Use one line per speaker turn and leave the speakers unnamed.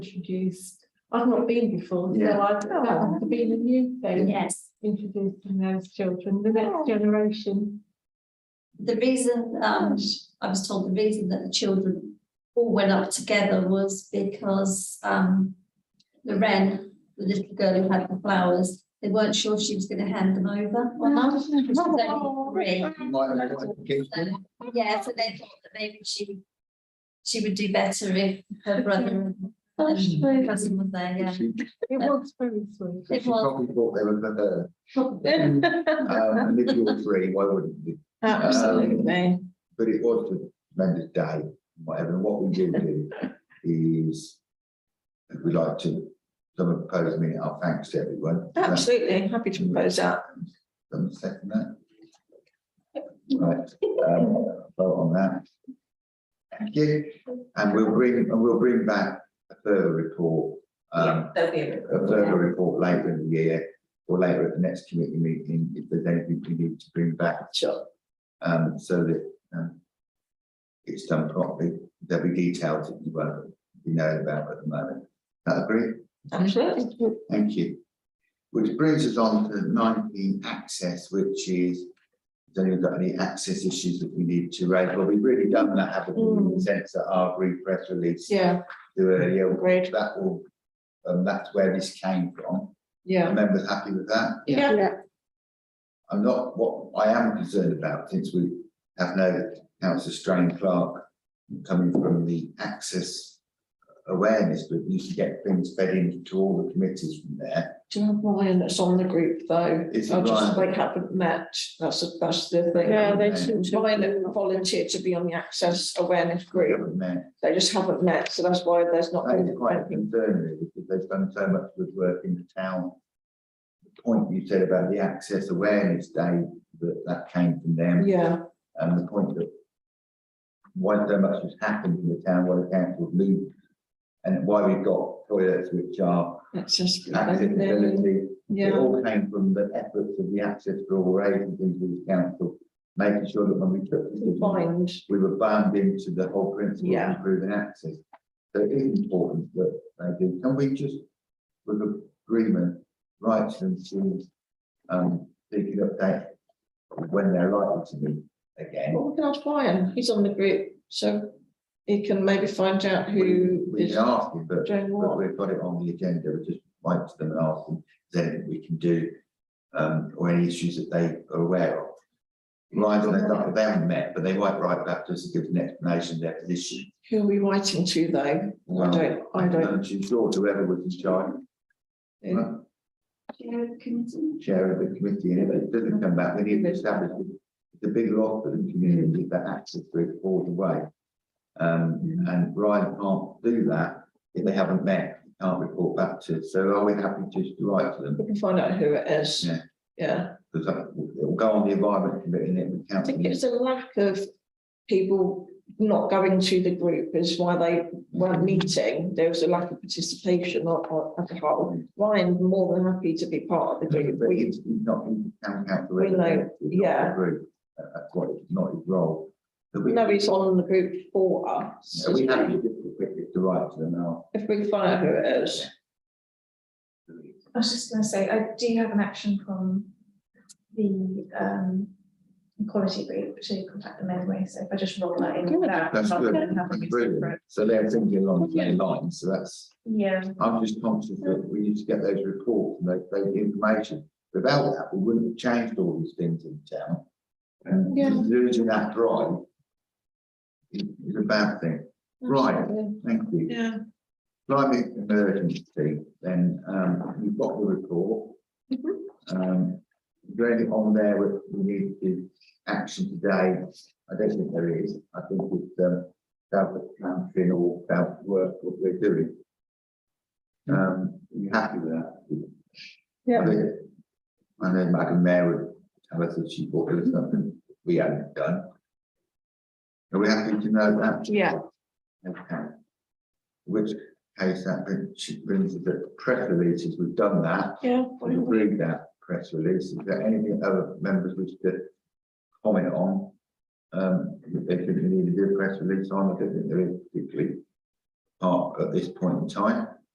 introduced. I've not been before, so
Yeah.
I've that would have been a new thing,
Yes,
introducing those children, the next generation.
the reason, um, I was told the reason that the children all went up together was because, um, the wren, the little girl who had the flowers, they weren't sure if she was gonna hand them over or not. She was only three.
You
Um,
might have got a gift in.
Oh. Yeah, so they thought that maybe she, she would do better if her brother and and cousin was there, yeah.
She
It was very sweet.
she probably thought they were there.
Um,
Um, and if you were three, why wouldn't you?
Absolutely.
But it was a tremendous day, whatever. And what we do do is we like to, someone proposed me, our thanks to everyone. Is that-
Absolutely. Happy to propose that.
Someone second that? Right, um, vote on that. Thank you. And we'll bring, and we'll bring back a further report, um, a further report later in the year or later at the next committee meeting, if there's anything we need to bring back.
Sure.
Um, so that, um, it's done properly, there'll be details that you won't be knowing about at the moment. That agree?
Absolutely.
Thank you. Which brings us on to nineteen access, which is, has anyone got any access issues that we need to raise? Well, we've really done that, haven't we, in the sense that our brief press release to
Mm. Yeah,
earlier,
agreed.
that will, um, that's where this came from.
Yeah.
Members happy with that?
Yeah.
I'm not, what I am concerned about, since we have no councillor Strain Clark coming from the access awareness, but we should get things fed into all the committees from there.
Do you have mine that's on the group though?
It's
I just,
mine.
they haven't met. That's, that's the thing.
Yeah, they
Yeah.
should.
Mine that volunteered to be on the access awareness
Great,
group.
haven't they?
They just haven't met. So that's why there's not.
That
been
is quite a
anything.
concern, really, because they've done so much good work in the town. The point you said about the access awareness day, that that came from them.
Yeah,
And the point that why so much has happened in the town, why the council have moved, and why we've got toilets which are
access.
accessibility. It
Yeah,
all came from the efforts of the Access for All agencies in the council, making sure that when we took this decision,
bind.
we were bound into the whole principle of
Yeah.
improving access. So it is important that they do. Can we just, with agreement, write to them to, um, they can update when they're likely to meet again?
Well, we can ask Brian. He's on the group, so he can maybe find out who
We
is
can ask them, but,
doing
but
what.
we've got it on the agenda, we just write to them and ask them, is there anything we can do? Um, or any issues that they are aware of. Right, and they, they haven't met, but they might write back to us and give us an explanation of their position.
Who are we writing to though? I don't, I don't.
And she's sure whoever was in charge,
know.
Chair of the committee.
chair of the committee, and if it doesn't come back, we need to establish. it. It's a big loss for the community, that access to it all the way. Um, and Brian can't do that if they haven't met, can't report back to, us. so are we happy to just write to them?
We can find out who it is.
Yeah.
Yeah,
Because that- it'll go on the environment committee and it would
I
count.
think it's a lack of people not going to the group is why they weren't meeting. There was a lack of participation or, or at the heart. Ryan more than happy to be part of the group.
But
We,
it's not in town council.
We know,
representative, not the
yeah.
group. That- That's what, it's not his role. But we,
know he's on the group for us.
so we have to just quickly to write to them now.
If we can find out who it is.
I was just gonna say, I do have an action from the um equality group to contact them anyway, so if I just roll that in.
Good.
now,
That's
rather
good,
than having
that's
it
brilliant.
separate.
So they're thinking along the same lines, so that's.
Yeah,
I'm just conscious that we need to get those reports and those, those information. Without that, we wouldn't have changed all these things in town. And
Yeah.
losing that drive is, is a bad thing. Right, thank you.
Yeah,
Climate emergency, then, um, you've got the report.
Mm-hmm.
Um, is there anything on there which we need to action today? I don't think there is. I think it's, um, about the country and all about work, what we're doing. Um, are you happy with that? I
Mm-hmm. yeah.
mean, I know Madam Mayor would tell us if she thought it was something we hadn't done. Are we happy to know that?
Yeah.
Okay. Which case that brings- she brings us the press releases, we've done that,
Yeah.
we agreed that press release, is there anything other members wish to comment on? Um, if they think we need to do a press release on, I don't think there is particularly. part at this point in time.